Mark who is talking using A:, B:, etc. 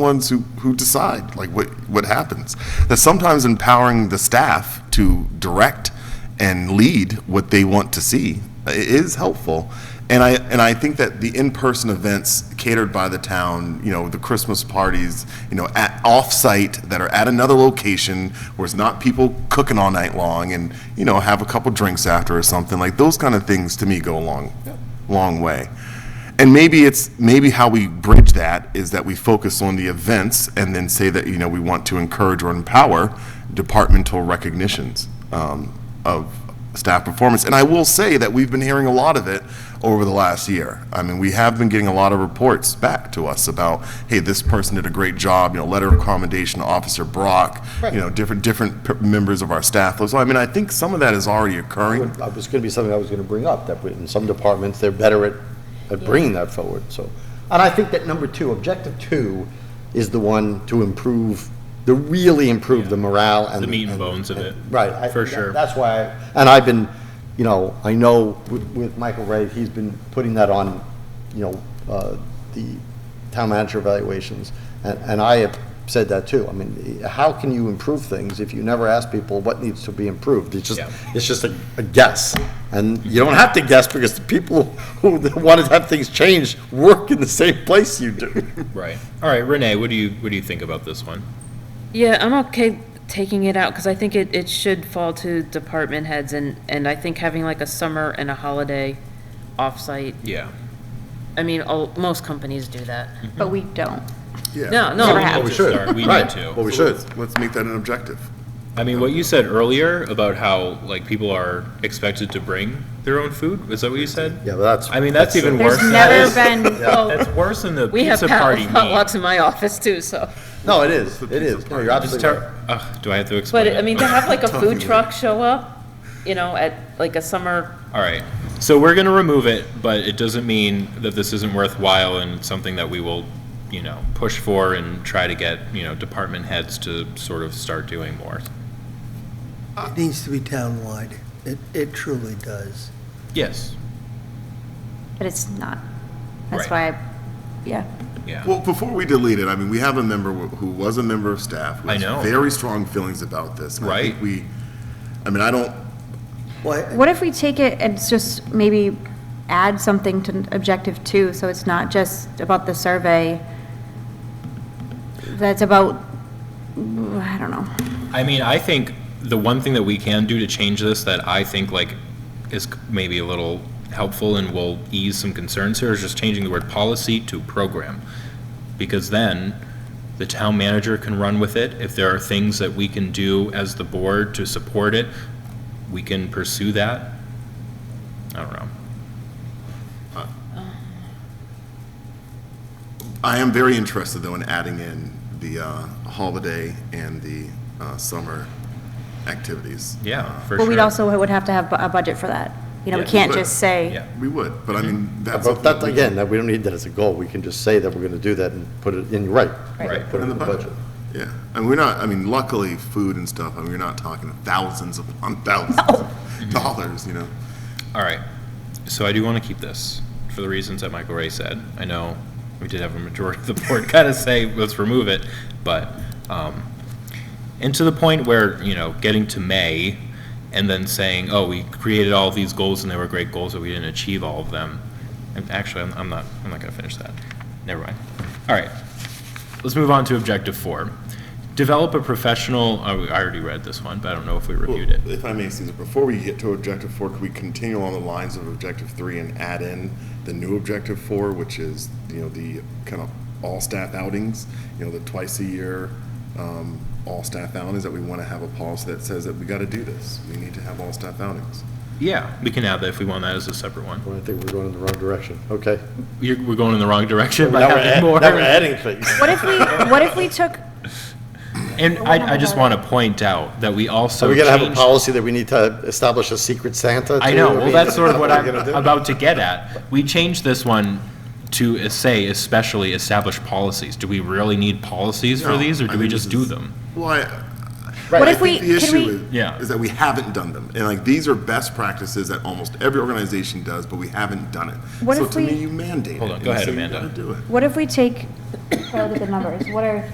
A: ones who, who decide, like, what, what happens. That sometimes empowering the staff to direct and lead what they want to see uh, i- is helpful. And I, and I think that the in-person events catered by the town, you know, the Christmas parties, you know, at, off-site, that are at another location, where it's not people cooking all night long, and, you know, have a couple drinks after or something, like, those kind of things, to me, go a long, long way. And maybe it's, maybe how we bridge that is that we focus on the events and then say that, you know, we want to encourage or empower departmental recognitions um, of staff performance. And I will say that we've been hearing a lot of it over the last year. I mean, we have been getting a lot of reports back to us about, hey, this person did a great job, you know, letter of commendation, to Officer Brock, you know, different, different p- members of our staff. So I mean, I think some of that is already occurring.
B: That was going to be something I was going to bring up, that in some departments, they're better at, at bringing that forward, so. And I think that number two, objective two, is the one to improve, to really improve the morale and.
C: The meat and bones of it.
B: Right. I-
C: For sure.
B: That's why, I- and I've been, you know, I know with, with Michael Ray, he's been putting that on, you know, uh, the town manager evaluations, and, and I have said that too. I mean, how can you improve things if you never ask people what needs to be improved? It's just,
C: Yeah.
B: it's just a, a guess. And you don't have to guess because the people who want to have things changed work in the same place you do.
C: Right. All right, Renee, what do you, what do you think about this one?
D: Yeah, I'm okay taking it out, because I think it, it should fall to department heads, and, and I think having like a summer and a holiday offsite,
C: Yeah.
D: I mean, all, most companies do that.
E: But we don't.
D: No,
E: Never
C: Well,
D: no,
E: happened. have
C: we
E: to.
C: should start. We need
B: Right. Well,
C: to.
B: we should.
A: Let's make that an objective.
C: I mean, what you said earlier about how, like, people are expected to bring their own food, is that what you said?
B: Yeah, but that's.
C: I mean, that's even
B: uh,
C: worse. than
E: There's
C: that
E: never
C: is-
E: been, Oh.
C: That's worse than the
D: we have
C: pizza
D: pot-
C: party meat.
D: potlucks in my office too, so.
B: No, it is, it is. No, you're
C: It's
B: absolutely right.
C: ter- ugh, do I have to explain?
D: But, I
C: it?
D: mean, to have like a food truck show up, you know, at like a summer,
C: All right. So we're going to remove it, but it doesn't mean that this isn't worthwhile and something that we will, you know, push for and try to get, you know, department heads to sort of start doing more.
F: It needs to be townwide. It, it truly does.
C: Yes.
E: but it's not. That's why,
C: Right.
E: I yeah.
C: Yeah.
A: Well, before we delete it, I mean, we have a member wh- who was a member of staff. who
C: I
A: has
C: know.
A: Very strong feelings about this. and I think
C: Right.
A: We, I mean, I don't,
F: Why,
E: What if we take it and just maybe add something to objective two, so it's not just about the survey? That's about, I don't know.
C: I mean, I think the one thing that we can do to change this that I think like is c- maybe a little helpful and will ease some concerns here is just changing the word policy to program. Because then the town manager can run with it. If there are things that we can do as the board to support it, we can pursue that. I don't know.
A: I am very interested though in adding in the uh, holiday and the uh, summer activities.
C: Yeah, for sure.
E: But we'd also would have to have bu- a budget for that. You know, we
C: Yeah.
E: can't just
C: Yeah.
E: say,
A: We would, but I
C: Mm-hmm.
A: mean, that's.
B: But
A: something
B: that,
A: that we-
B: again, that, we don't need that as a goal, we can just say that we're gonna do that and put it in, you're right.
C: Right.
B: Put it in the budget.
A: Yeah, and we're not, I mean, luckily, food and stuff, I mean, we're not talking thousands upon thousands of dollars, you know?
C: All right. So I do want to keep this for the reasons that Michael Ray said. I know we did have a majority of the board kind of say, let's remove it, but, um, and to the point where, you know, getting to May and then saying, oh, we created all these goals and they were great goals, but we didn't achieve all of them. And actually, I'm, I'm not, I'm not going to finish that. Never mind. All right. Let's move on to objective four. Develop a professional, oh, I already read this one, but I don't know if we reviewed it.
A: Well, If I may, Caesar, before we get to objective four, could we continue along the lines of objective three and add in the new objective four, which is, you know, the kind of all staff outings, you know, the twice a year, um, all staff outings, that we want to have a policy that says that we got to do this. We need to have all staff outings.
C: Yeah, we can add that if we want that as a separate one.
B: Well, I think we're going in the wrong direction, okay.
C: You're, we're going in the wrong direction by
B: Now we're add-
C: having more.
B: now we're adding things.
E: what if we, what if we took,
C: And I, I just want to point out that we also
B: Are we gonna have a
C: changed-
B: policy that we need to establish a secret Santa?
C: I
B: too?
C: know. Well,
B: mean,
C: that's sort of what
B: we're
C: I'm
B: gonna do.
C: about to get at. We changed this one to uh, say especially establish policies. Do we really need policies for
A: No,
C: these, or
A: I
C: do
A: mean,
C: we
A: this
C: just do
A: is-
C: them?
A: Well, I,
E: what
A: I
E: if we,
A: think the
E: can
A: issue
E: we,
A: is,
C: Yeah.
A: is that we haven't done them, and like these are best practices that almost every organization does, but we haven't done it.
E: What
A: so
E: if
A: to me,
E: we-
A: you mandate
C: Hold
A: it.
C: on, go
A: and
C: ahead,
A: say you
C: Amanda.
A: gotta do it.
E: what if we take show that the numbers, what are